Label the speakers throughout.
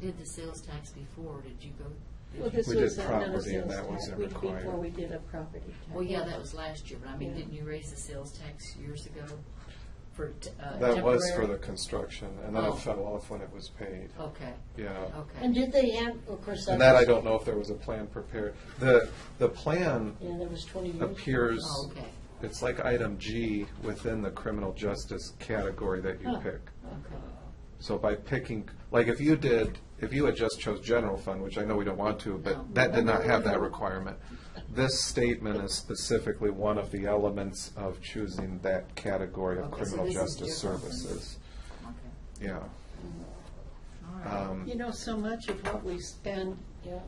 Speaker 1: did the sales tax before, did you go? did
Speaker 2: Well,
Speaker 1: you-
Speaker 2: this
Speaker 3: We did
Speaker 2: was not a
Speaker 3: property, and
Speaker 2: sales
Speaker 3: that
Speaker 2: tax,
Speaker 3: wasn't
Speaker 2: we-
Speaker 3: required.
Speaker 2: before we did a property tax.
Speaker 1: Well, yeah, that was last year, but I mean,
Speaker 2: Yeah.
Speaker 1: didn't you raise the sales tax years ago for t- uh, temporary?
Speaker 3: That was for the construction, and then
Speaker 1: Oh.
Speaker 3: it fell off when it was paid.
Speaker 1: Okay,
Speaker 3: Yeah.
Speaker 2: And
Speaker 1: okay. Oh,
Speaker 2: did they have, of course.
Speaker 3: And that I don't know if there was a plan prepared. The, the plan
Speaker 2: Yeah, that was twenty years. ago.
Speaker 3: appears,
Speaker 1: Oh, okay,
Speaker 3: it's like item G within the criminal justice category that you
Speaker 2: Huh.
Speaker 3: pick.
Speaker 1: okay.
Speaker 3: So by picking, like if you did, if you had just chose general fund, which I know we don't want to,
Speaker 1: No.
Speaker 3: but that did not have that requirement. This statement is specifically one of the elements of choosing that category
Speaker 1: Okay,
Speaker 3: of
Speaker 1: so
Speaker 3: criminal
Speaker 1: this is
Speaker 3: justice
Speaker 1: different.
Speaker 3: services.
Speaker 1: Okay,
Speaker 3: Yeah.
Speaker 1: all right.
Speaker 3: Um,
Speaker 2: You know, so much of what we spend,
Speaker 1: Yeah.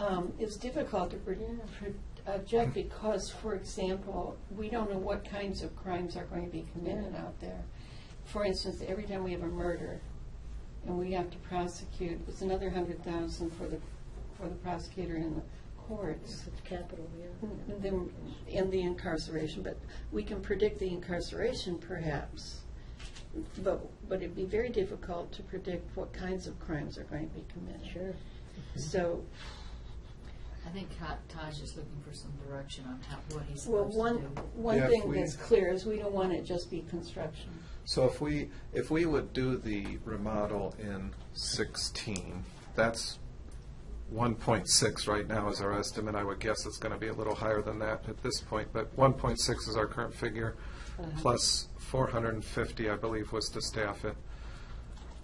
Speaker 2: um, is difficult to pro- pro- object because, for example, we don't know what kinds of crimes are going to be committed
Speaker 1: Yeah.
Speaker 2: out there. For instance, every time we have a murder and we have to prosecute, it's another hundred thousand for the, for the prosecutor and the courts.
Speaker 4: Capital, yeah.
Speaker 2: And then- and the incarceration, but we can predict the incarceration perhaps. But, but it'd be very difficult to predict what kinds of crimes are going to be committed.
Speaker 4: Sure.
Speaker 2: So,
Speaker 1: I think Ka- Taj is looking for some direction on how, what he's
Speaker 2: well,
Speaker 1: supposed
Speaker 2: one,
Speaker 1: to do.
Speaker 2: one
Speaker 3: Yeah, if
Speaker 2: thing
Speaker 3: we-
Speaker 2: that's clear is we don't want it just be construction.
Speaker 3: So if we, if we would do the remodel in sixteen, that's one point six right now is our estimate. I would guess it's gonna be a little higher than that at this point, but one point six is our current figure, plus four hundred and fifty, I believe, was to staff it.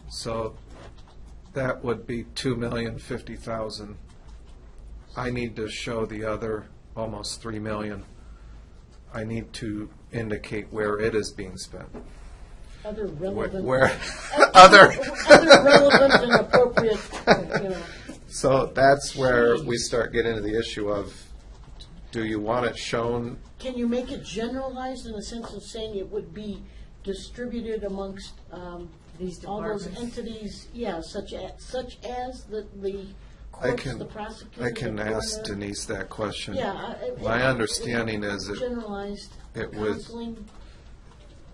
Speaker 3: So that would be two million fifty thousand. I need to show the other almost three million. I need to indicate where it is being spent.
Speaker 4: Other
Speaker 3: Where,
Speaker 4: relevant.
Speaker 3: where other,
Speaker 4: Other relevant and appropriate, you know.
Speaker 3: so that's where we start getting into the issue of, do you want it shown?
Speaker 4: Can you make it generalized in the sense of saying it would be distributed amongst um,
Speaker 1: These
Speaker 4: all those
Speaker 1: departments.
Speaker 4: entities? Yeah, such as, such as the, the
Speaker 3: I
Speaker 4: courts,
Speaker 3: can,
Speaker 4: the prosecutor.
Speaker 3: I can
Speaker 4: the
Speaker 3: ask
Speaker 4: coroner.
Speaker 3: Denise that question.
Speaker 4: Yeah. I- I-
Speaker 3: My understanding is it-
Speaker 4: Generalized
Speaker 3: it was-
Speaker 4: counseling.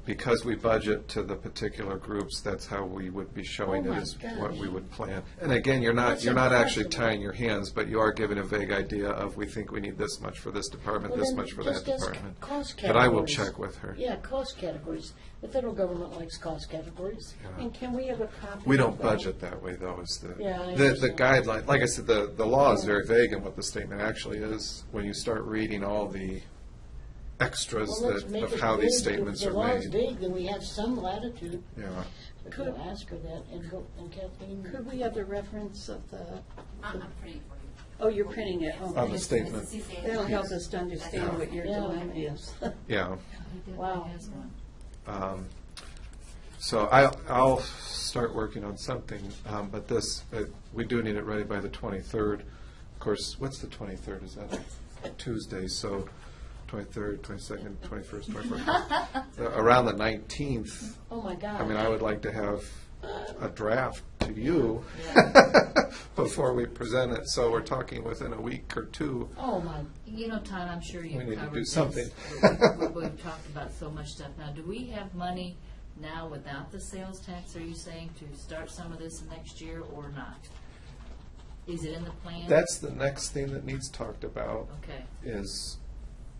Speaker 3: Because we budget to the particular groups, that's how we would be showing
Speaker 4: Oh
Speaker 3: it
Speaker 4: my
Speaker 3: is what
Speaker 4: gosh.
Speaker 3: we would plan. And again, you're not,
Speaker 4: That's
Speaker 3: you're not actually
Speaker 4: impossible.
Speaker 3: tying your hands, but you are giving a vague idea of, we think we need this much for this department,
Speaker 4: Well,
Speaker 3: this
Speaker 4: then
Speaker 3: much for that
Speaker 4: just as c-
Speaker 3: department.
Speaker 4: cost
Speaker 3: But I will
Speaker 4: categories.
Speaker 3: check with her.
Speaker 4: Yeah, cost categories. The federal government likes cost categories.
Speaker 2: And can we have a copy?
Speaker 3: We
Speaker 2: of
Speaker 3: don't
Speaker 2: that?
Speaker 3: budget that way, though, is the,
Speaker 4: Yeah, I
Speaker 3: the, the
Speaker 4: understand.
Speaker 3: guideline, like I said, the, the law is very vague in what the statement actually is, when you start reading all the extras
Speaker 4: Well, let's
Speaker 3: that,
Speaker 4: make
Speaker 3: of
Speaker 4: it
Speaker 3: how these
Speaker 4: big. If
Speaker 3: statements
Speaker 4: the
Speaker 3: are
Speaker 4: law is
Speaker 3: made.
Speaker 4: big, then we have some latitude.
Speaker 3: Yeah,
Speaker 4: We could ask her that, and go- and Kathleen.
Speaker 2: Could we have the reference of the,
Speaker 5: I'm I'm pretty for you.
Speaker 2: oh, you're printing it,
Speaker 3: of
Speaker 2: okay.
Speaker 3: the
Speaker 5: It's
Speaker 3: statement,
Speaker 5: the CCA.
Speaker 2: That'll help us to understand what your
Speaker 4: Yeah.
Speaker 2: dilemma is.
Speaker 3: yeah.
Speaker 1: He
Speaker 4: Wow.
Speaker 1: definitely has one.
Speaker 3: Um, So I, I'll start working on something, um, but this, uh, we do need it ready by the twenty-third. Of course, what's the twenty-third, is that a Tuesday, so twenty-third, twenty-second, twenty-first, twenty-fourth. Uh, Around the nineteenth,
Speaker 4: Oh, my God.
Speaker 3: I mean, I would like to have a draft to you before we present it, so we're talking within a week or two.
Speaker 4: Oh, my,
Speaker 1: You know, Todd, I'm sure
Speaker 3: We
Speaker 1: you've
Speaker 3: need to
Speaker 1: covered
Speaker 3: do
Speaker 1: this.
Speaker 3: something.
Speaker 1: We- we- We've talked about so much stuff. Now, do we have money now without the sales tax, are you saying, to start some of this next year or not? Is it in the plan?
Speaker 3: That's the next thing that needs talked about.
Speaker 1: Okay,
Speaker 3: is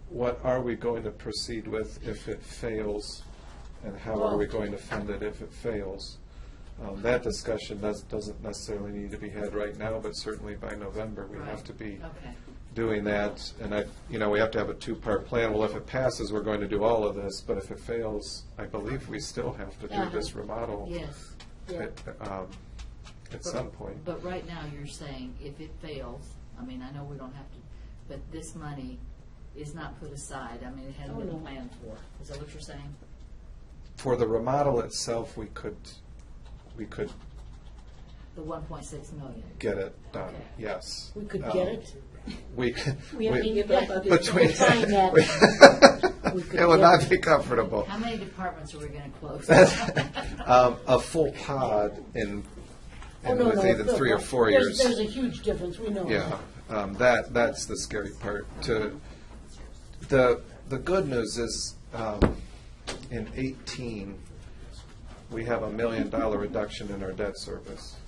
Speaker 3: what are we going to proceed with if it fails? And how are we going to fund it if it fails? Um, That discussion does- doesn't necessarily need to be had right now, but certainly by November, we have
Speaker 1: Right.
Speaker 3: to be
Speaker 1: okay.
Speaker 3: doing that. And I, you know, we have to have a two-part plan. Well, if it passes, we're going to do all of this, but if it fails, I believe we still have to do
Speaker 4: Uh-huh.
Speaker 3: this remodel.
Speaker 1: Yes.
Speaker 4: yeah.
Speaker 3: at, um, At some point.
Speaker 1: But right now, you're saying if it fails, I mean, I know we don't have to, but this money is not put aside. I mean, it hasn't
Speaker 4: Oh, no.
Speaker 1: been planned for. Is that what you're saying?
Speaker 3: For the remodel itself, we could, we could
Speaker 1: The one point six million?
Speaker 3: get it done,
Speaker 1: Okay.
Speaker 3: yes.
Speaker 4: We could
Speaker 3: Um,
Speaker 4: get it.
Speaker 3: We,
Speaker 2: We have to
Speaker 3: we-
Speaker 2: give up other.
Speaker 3: between,
Speaker 4: could find that. We could
Speaker 3: it would
Speaker 4: get
Speaker 3: not
Speaker 4: it.
Speaker 3: be comfortable.
Speaker 1: How many departments are we gonna close?
Speaker 3: Um, A full pod in,
Speaker 4: Oh,
Speaker 3: in
Speaker 4: no, no,
Speaker 3: with either
Speaker 4: no,
Speaker 3: three or
Speaker 4: no.
Speaker 3: four
Speaker 4: There's-
Speaker 3: years.
Speaker 4: There's a huge difference, we know.
Speaker 3: Yeah, um, that, that's the scary part to, the, the good news is, um, in eighteen, we have a million dollar reduction in our debt service.